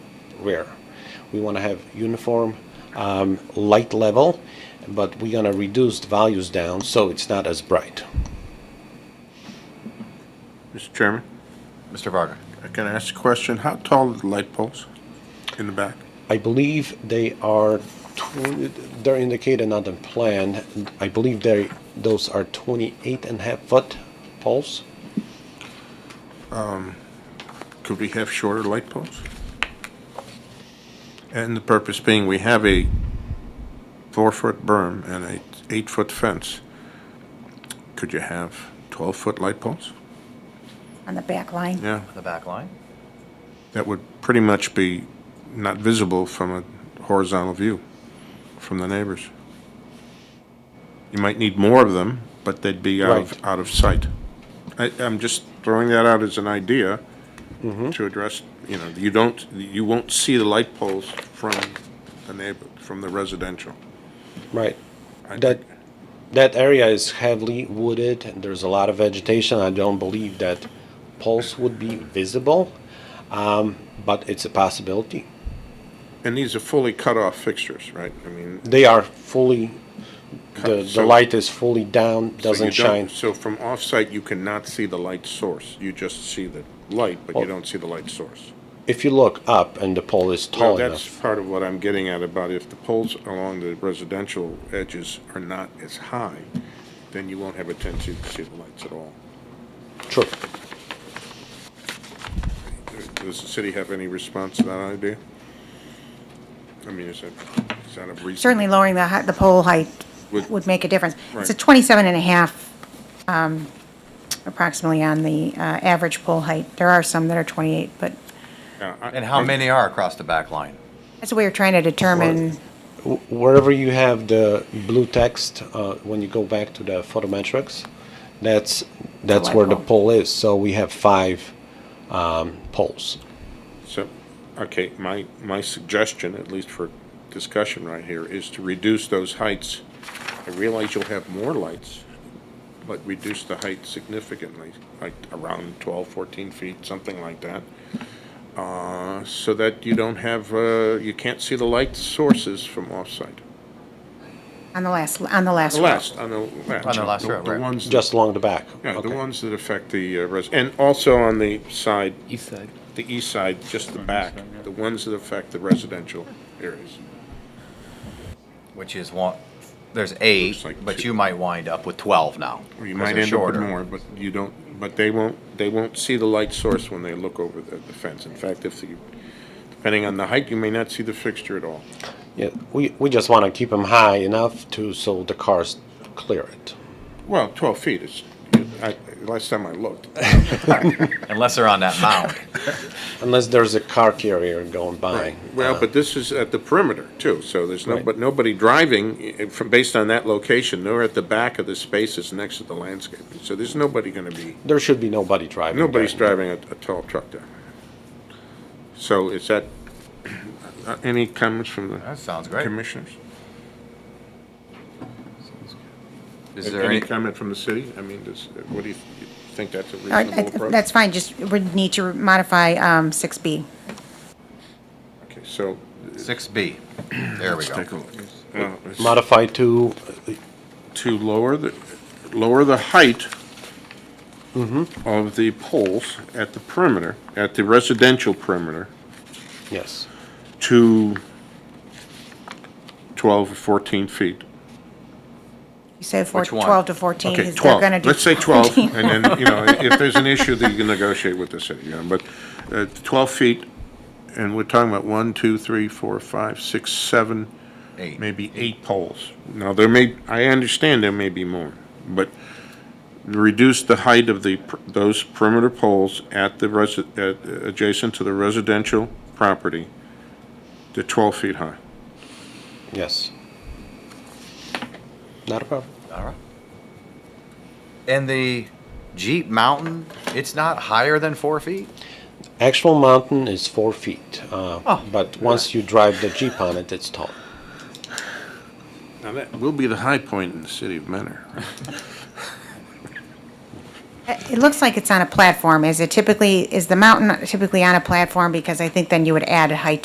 rear. We want to have uniform um, light level, but we're going to reduce the values down so it's not as bright. Mr. Chairman, Mr. Varga. I can ask a question. How tall are the light poles in the back? I believe they are, tw- they're indicated on the plan, I believe they, those are 28 and a half foot poles. Could we have shorter light poles? And the purpose being, we have a four-foot berm and a eight-foot fence. Could you have twelve-foot light poles? on the back line. Yeah, The back line? that would pretty much be not visible from a horizontal view from the neighbors. You might need more of them, but they'd be out of, Right. out of sight. I, I'm just throwing that out as an idea Mm-hmm. to address, you know, you don't, you won't see the light poles from the neighbor, from the residential. Right. I- That, that area is heavily wooded, and there's a lot of vegetation. I don't believe that poles would be visible, um, but it's a possibility. And these are fully cut-off fixtures, right? I mean. They are fully, the, the so- light is fully down, so you doesn't don't- shine. So from off-site, you cannot see the light source. You just see the light, but you Well- don't see the light source. If you look up and the pole is Well, tall that's enough, part of what I'm getting at about if the poles along the residential edges are not as high, then you won't have a tendency to see the lights at all. true. Does the city have any response to that idea? I mean, is that, is that a reason? Certainly lowering the, hei- the pole height Would- would make a difference. It's a Right. 27 and a half um, approximately on the uh, average pole height. There are some that are 28, but Yeah, I- And how I- many are across the back line? that's what we were trying to determine. Wh- Wherever you have the blue text, uh, when you go back to the photometrics, that's, that's light where the pole. pole is. So we have five, um, poles. So, okay, my, my suggestion, at least for discussion right here, is to reduce those heights. I realize you'll have more lights, but reduce the height significantly, like around 12, 14 feet, something like that. Uh, So that you don't have, uh, you can't see the light sources from offsite. On the last, on the last The row. last, on the last. On the last row, The right. ones, that- Just along the back? yeah, the Okay. ones that affect the uh, res, and also on the side, East side. the east side, just the back, the ones that affect the residential areas. Which is one, there's eight, Looks like but two. you might wind up with 12 now. Or you 'cause might they're end up with shorter. more, but you don't, but they won't, they won't see the light source when they look over the, the fence. In fact, if you, depending on the height, you may not see the fixture at all. Yeah, we, we just want to keep them high enough to, so the cars clear it. Well, twelve feet is, I, last time I looked. Unless they're on that mound. Unless there's a car carrier going by. Well, but this is at the perimeter too, so there's no, Right. but nobody driving eh, from, based on that location, nor at the back of the spaces next to the landscape. So there's nobody gonna be. There should be nobody driving. Nobody's there. driving a, a tall truck there. So is that, uh, any comments from the? That sounds great. Commissioners? Is there Any any, comment from the city? I mean, does, what do you, you think that's a All right, reasonable approach? That's fine, just would need to modify um, 6B. Okay, so, 6B? There we go. uh, it's Modify to, to lower the, lower the height of the poles at the perimeter, at the residential perimeter, yes, to 12 or 14 feet. You said four- Which one? 12 to 14. Okay, is they're 12. gonna do Let's say 12, 14. and then, you know, if there's an issue, then you can negotiate with the city, you know, but uh, 12 feet, and we're talking about one, two, three, four, five, six, seven, Eight. maybe eight poles. Now, there may, I understand there may be more, but reduce the height of the, per- those perimeter poles at the resi, at, adjacent to the residential property to 12 feet high. yes. Not a problem. All right. And the Jeep Mountain, it's not higher than four feet? Actual mountain is four feet, uh, Oh. but once you drive the Jeep on it, it's tall. Now, that will be the high point in the city of Mentor, right? It looks like it's on a platform. Is it typically, is the mountain typically on a platform? Because I think then you would add a height